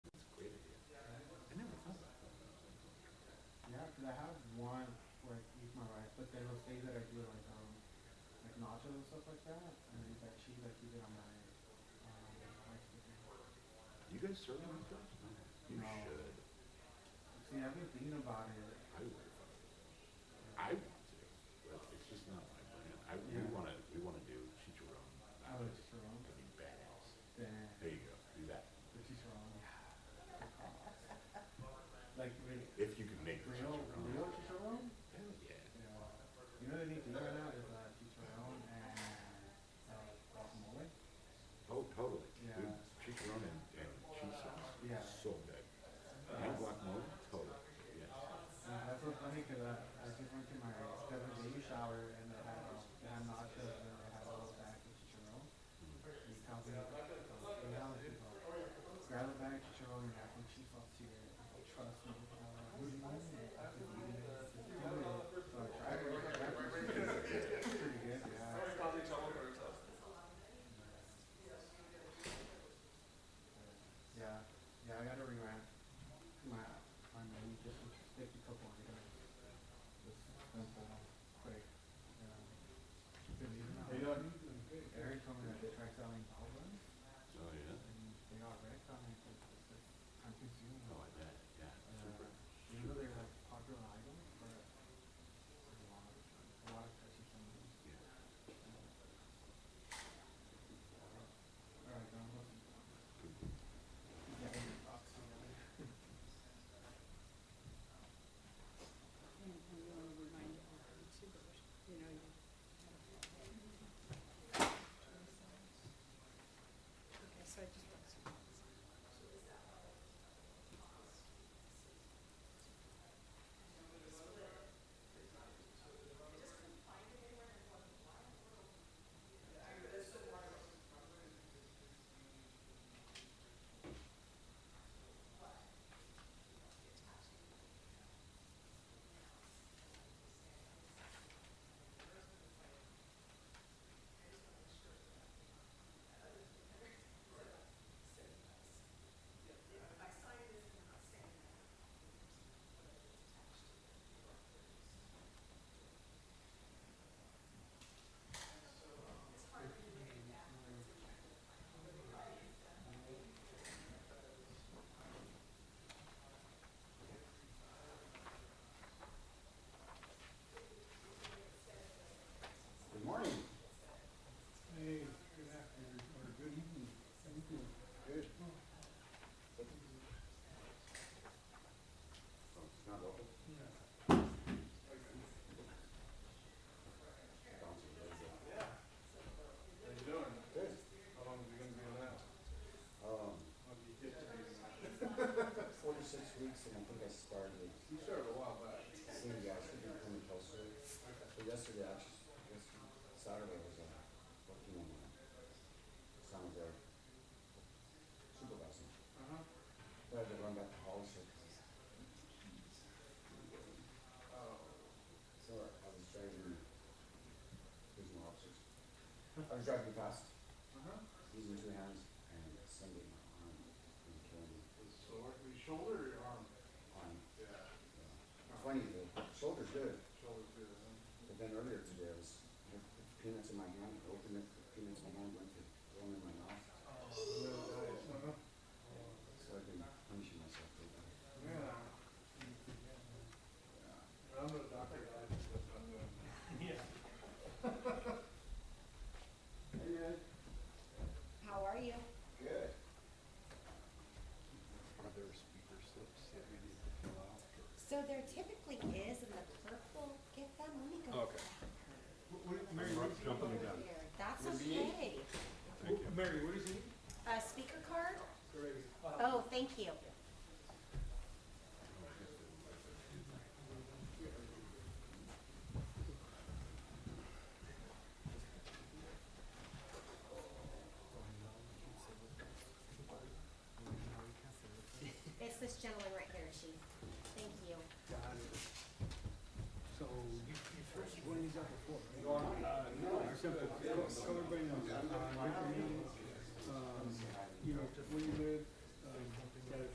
things that I do like um like nachos and stuff like that, and then like cheese like you did on my um like chicken. You guys serve nachos? You No. should. See, I've been thinking about it. I would. I want to, but it's just not my brand. I, we Yeah. wanna, we wanna do chicharron. I was nachos. wrong. That'd be badass. Then There you go, do that. the chicharron. Like wait, If you can make the real chicharron. real chicharron? Hell yeah. Yeah. You know the neat thing right now is uh chicharron and uh guacamole. Oh, totally. Dude, Yeah. Chicharron and, and cheese sauce. Yeah. So good. And guacamole, totally, yes. Yeah, that's so funny because Uh, I, I just went to my cousin's baby shower and they had, uh, they had nachos and they had a little bag of chicharron. And you count it up, like, uh, eight dollars people. Grab a bag of chicharron and have some cheese sauce to it. Trust me. I'm like, "What do you want?" And I said, "You need it." It's good. So I tried it. I tried it. It's pretty good, yeah. Yeah, yeah, I gotta rewrap my, my menu just with sticky couple of items. Just simple, quick, um, good evening. Eric told me that they tried selling all of them, Oh, yeah? and they got wrecked on it, 'cause it's just time consuming. Oh, I bet, yeah, super. Uh, Even though they're like popular items, but a lot, a lot of touchy things. Yeah. Alright, I'm looking. Yeah, I'm gonna talk to you. And, and you wanna remind everybody too, that, you know, you. Okay, so I just want to. Good morning. Hey, good afternoon, or good evening. Thank you. Good. Oh, it's not open? Yeah. Bouncing a little bit. How you doing? Good. How long is it gonna be allowed? Um, How do you get to these? four to six weeks, and I think I started, You started a while back. seeing you guys could be coming closer. So yesterday, I just, yesterday, Saturday was, uh, working on my sound there. Supervising. Uh-huh. I had to run back to Hollister, 'cause Oh, So I was driving, there's no officers. I was driving fast, uh-huh. using two hands, and somebody in my arm was killing me. Was sore, was your shoulder or your arm? Arm, Yeah. yeah. Funny, the shoulder's good, Shoulder's good, huh? but then earlier today, I was, I had peanuts in my hand, I opened it, the peanuts in my hand went to one in my mouth. Uh-huh. So I've been punishing myself for that. Yeah. Yeah. But I'm no doctor, guys, so that's what I'm doing. Hey, Ed. How are you? Good. Are there speaker slips that we need to fill out? So there typically is in the purple, get them, let me go. Okay. What, what, Mary, I'm what, jumping the gun. There, That's Would be- okay. Thank you. Mary, what is it? A speaker card? Great. Oh, thank you. It's this gentleman right here, chief. Thank you. Got it. So you, you first, you went these out before, right? Or something. So everybody knows, uh, like, um, you know, where you live,